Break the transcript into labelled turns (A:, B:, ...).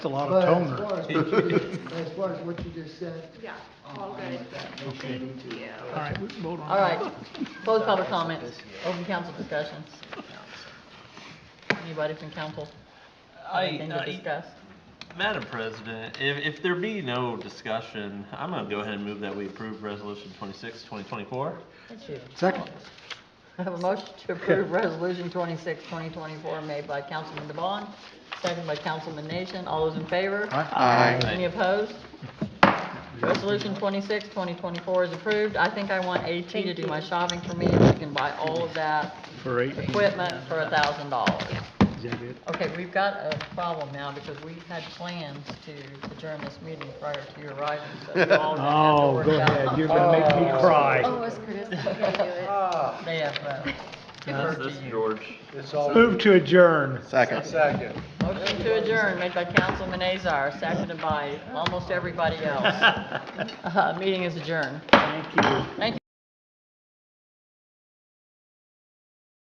A: It's a lot of
B: But as
A: toner.
B: far as, as far as what you just said,
C: Yeah, all good. Thank you.
A: All right, we can vote on
D: All
A: that.
D: right, close public comments, open council discussions. Anybody from council have anything to
E: I,
D: discuss?
E: I, Madam President, if, if there be no discussion, I'm gonna go ahead and move that we approve resolution twenty-six, twenty twenty-four.
D: Thank you.
A: Second.
D: I have a motion to approve Resolution 26, 2024, made by Councilman DeBon, seconded by Councilman Nation. All those in favor?
A: Aye.
D: Any opposed? Resolution 26, 2024 is approved. I think I want AT to do my shopping for me, and she can buy all of that
A: For eight.
D: equipment for $1,000.
A: Is that it?
D: Okay, we've got a problem now, because we had plans to adjourn this meeting prior to your arrival, so we all have to
A: Oh,
D: work
A: go
D: out.
A: ahead, you're gonna make me cry.
C: Oh, it's Curtis, I can't do it.
D: They have, uh,
E: That's, that's George.
A: Move to adjourn.
D: Motion to adjourn, made by Councilman Azar, seconded by almost everybody else. Uh, Meeting is adjourned. Thank you. Thank you.